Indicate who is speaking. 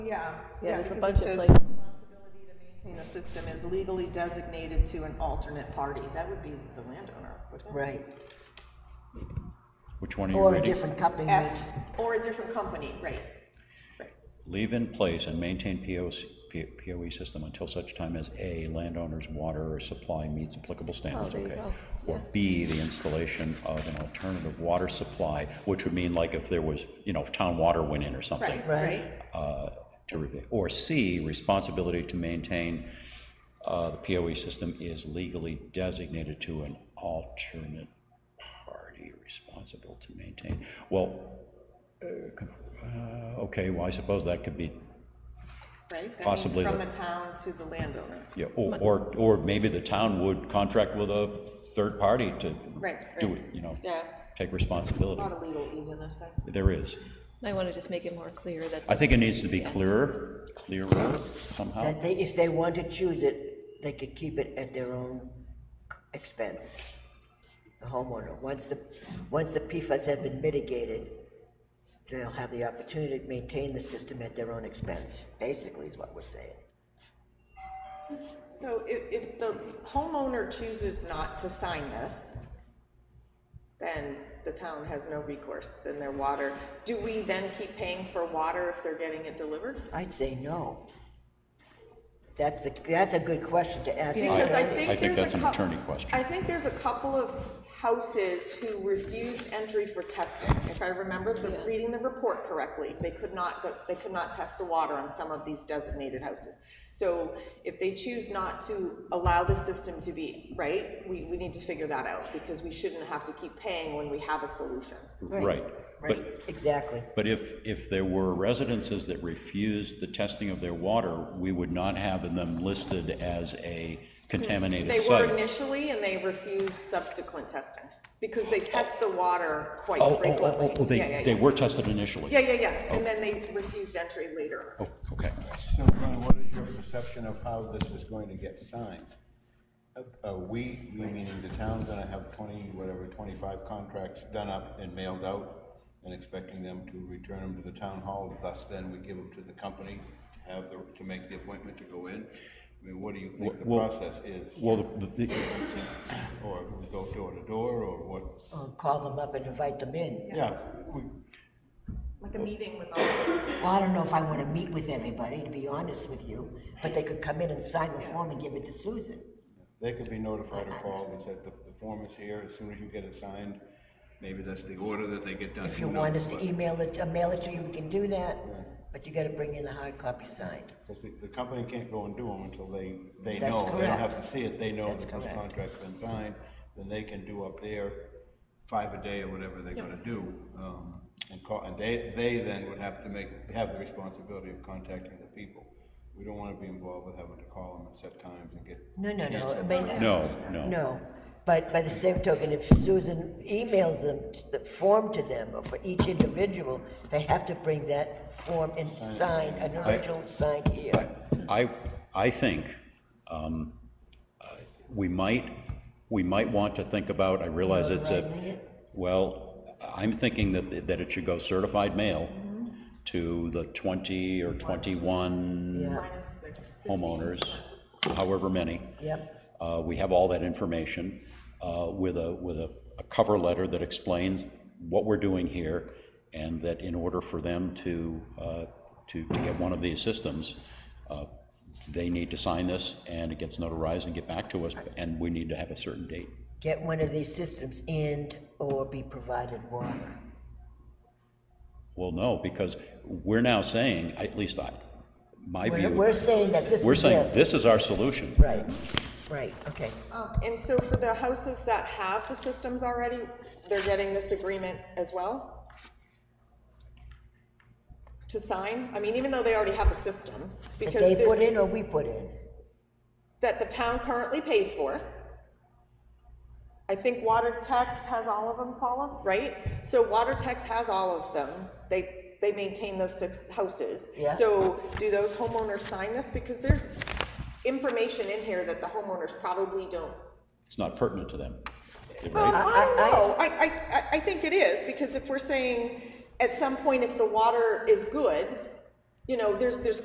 Speaker 1: Yeah.
Speaker 2: Yeah, there's a
Speaker 1: because it
Speaker 2: bunch of
Speaker 1: says
Speaker 2: places.
Speaker 1: Responsibility to maintain a system is legally designated to an alternate party. That would be the landowner, wouldn't it?
Speaker 3: right,
Speaker 4: Which one are you
Speaker 3: or a
Speaker 4: reading?
Speaker 3: different company.
Speaker 1: F, or a different company, right.
Speaker 4: Leave in place and maintain POS, P- POE system until such time as A, landowner's water or supply meets applicable standards,
Speaker 2: there you
Speaker 4: okay?
Speaker 2: go,
Speaker 4: Or B, the installation of an alternative water supply, which would mean like if there was, you know, if town water went in or something.
Speaker 1: Right,
Speaker 3: Right.
Speaker 1: right.
Speaker 4: uh, to review. Or C, responsibility to maintain uh, the POE system is legally designated to an alternate party responsible to maintain. Well, uh, con- uh, okay, well, I suppose that could be,
Speaker 1: Right? That means
Speaker 4: Possibly
Speaker 1: From
Speaker 4: the-
Speaker 1: the town to the landowner.
Speaker 4: yeah, or, or- or maybe the town would contract with a third party to
Speaker 1: Right,
Speaker 4: do
Speaker 1: right.
Speaker 4: it, you know,
Speaker 1: Yeah.
Speaker 4: take
Speaker 1: A
Speaker 4: responsibility.
Speaker 1: lot of legal ease in this thing.
Speaker 4: There is.
Speaker 2: Might want to just make it more clear that
Speaker 4: I think it needs to be clearer, clearer somehow.
Speaker 3: That they, if they want to choose it, they could keep it at their own expense, the homeowner. Once the, once the PFAS have been mitigated, they'll have the opportunity to maintain the system at their own expense, basically is what we're saying.
Speaker 1: So if, if the homeowner chooses not to sign this, then the town has no recourse, then their water, do we then keep paying for water if they're getting it delivered?
Speaker 3: I'd say no. That's the, that's a good question to ask. the
Speaker 1: Because I
Speaker 3: attorney.
Speaker 1: think
Speaker 4: I think
Speaker 1: there's a
Speaker 4: that's an
Speaker 1: cou-
Speaker 4: attorney question.
Speaker 1: I think there's a couple of houses who refused entry for testing. If I remember the, reading the report correctly, they could not, go- they could not test the water on some of these designated houses. So if they choose not to allow the system to be, right, we, we need to figure that out because we shouldn't have to keep paying when we have a solution.
Speaker 4: Right. But
Speaker 3: Right, exactly.
Speaker 4: But if, if there were residences that refused the testing of their water, we would not have them listed as a contaminated
Speaker 1: Hmm. They were
Speaker 4: site.
Speaker 1: initially and they refused subsequent testing because they test the water quite
Speaker 4: Oh, oh,
Speaker 1: frequently.
Speaker 4: oh, oh, oh,
Speaker 1: Yeah, yeah,
Speaker 4: they,
Speaker 1: yeah.
Speaker 4: they were tested initially?
Speaker 1: Yeah, yeah, yeah, and then they refused entry later.
Speaker 4: Oh, okay.
Speaker 5: So, Ron, what is your perception of how this is going to get signed? Uh, Are we, we meaning the town, gonna have twenty, whatever, twenty-five contracts done up and mailed out, and expecting them to return them to the town hall, thus then we give them to the company to have the, to make the appointment to go in? I mean, what do you think the
Speaker 4: Well-
Speaker 5: process is?
Speaker 4: Well, the, the-
Speaker 5: Or we go door to door, or what?
Speaker 3: Or Call them up and invite them in.
Speaker 5: Yeah, we,
Speaker 1: Like a meeting with all.
Speaker 3: Well, I don't know if I want to meet with everybody, to be honest with you, but they could come in and sign the form and give it to Susan.
Speaker 5: They could be notified or called and said, the, the form is here, as soon as you get it signed, maybe that's the order that they get done.
Speaker 3: If you
Speaker 5: Who
Speaker 3: want
Speaker 5: knows?
Speaker 3: us to
Speaker 5: But
Speaker 3: email it, uh, mail it to you, we can do that, but you got to bring in the hard copy signed.
Speaker 5: 'cause the, the company can't go and do them until they, they
Speaker 3: That's
Speaker 5: know, they don't have to
Speaker 3: correct.
Speaker 5: see it, they know
Speaker 3: That's
Speaker 5: that this
Speaker 3: correct.
Speaker 5: contract's been signed, then they can do up there five a day or whatever they're gonna do. um, And call, and they, they then would have to make, have the responsibility of contacting the people. We don't wanna be involved with having to call them and set times and get.
Speaker 3: No, no, no, I
Speaker 5: canceled.
Speaker 3: mean,
Speaker 4: no, no.
Speaker 3: no. But by the same token, if Susan emails them, t- the form to them, or for each individual, they have to bring that form and sign, an original signed here.
Speaker 4: I, I think um, uh, we might, we might want to think about, I realize it's a,
Speaker 3: Notarizing it?
Speaker 4: well, I'm thinking that, that it should go certified mail to the 20 or 21
Speaker 3: Yeah,
Speaker 4: homeowners, however many.
Speaker 3: yep,
Speaker 4: Uh, We have all that information uh, with a, with a a cover letter that explains what we're doing here, and that in order for them to, uh, to to get one of these systems, uh, they need to sign this, and it gets notarized and get back to us, and we need to have a certain date.
Speaker 3: get one of these systems and/or be provided water.
Speaker 4: Well, no, because we're now saying, at least I, my
Speaker 3: We're,
Speaker 4: view,
Speaker 3: we're saying that this
Speaker 4: we're
Speaker 3: is it.
Speaker 4: saying, this is our solution.
Speaker 3: Right, right, okay.
Speaker 1: Um, And so for the houses that have the systems already, they're getting this agreement as well? To sign? I mean, even though they already have the system,
Speaker 3: That
Speaker 1: because
Speaker 3: they put
Speaker 1: there's,
Speaker 3: in or we put in?
Speaker 1: that the town currently pays for. I think water tax has all of them, Paula, right? So water tax has all of them. They, they maintain those six houses.
Speaker 3: Yeah.
Speaker 1: So do those homeowners sign this? Because there's information in here that the homeowners probably don't
Speaker 4: It's not pertinent to them,
Speaker 1: Well,
Speaker 4: right?
Speaker 1: I don't know, I, I, I- I think it is, because if we're saying, at some point, if the water is good, you know, there's, there's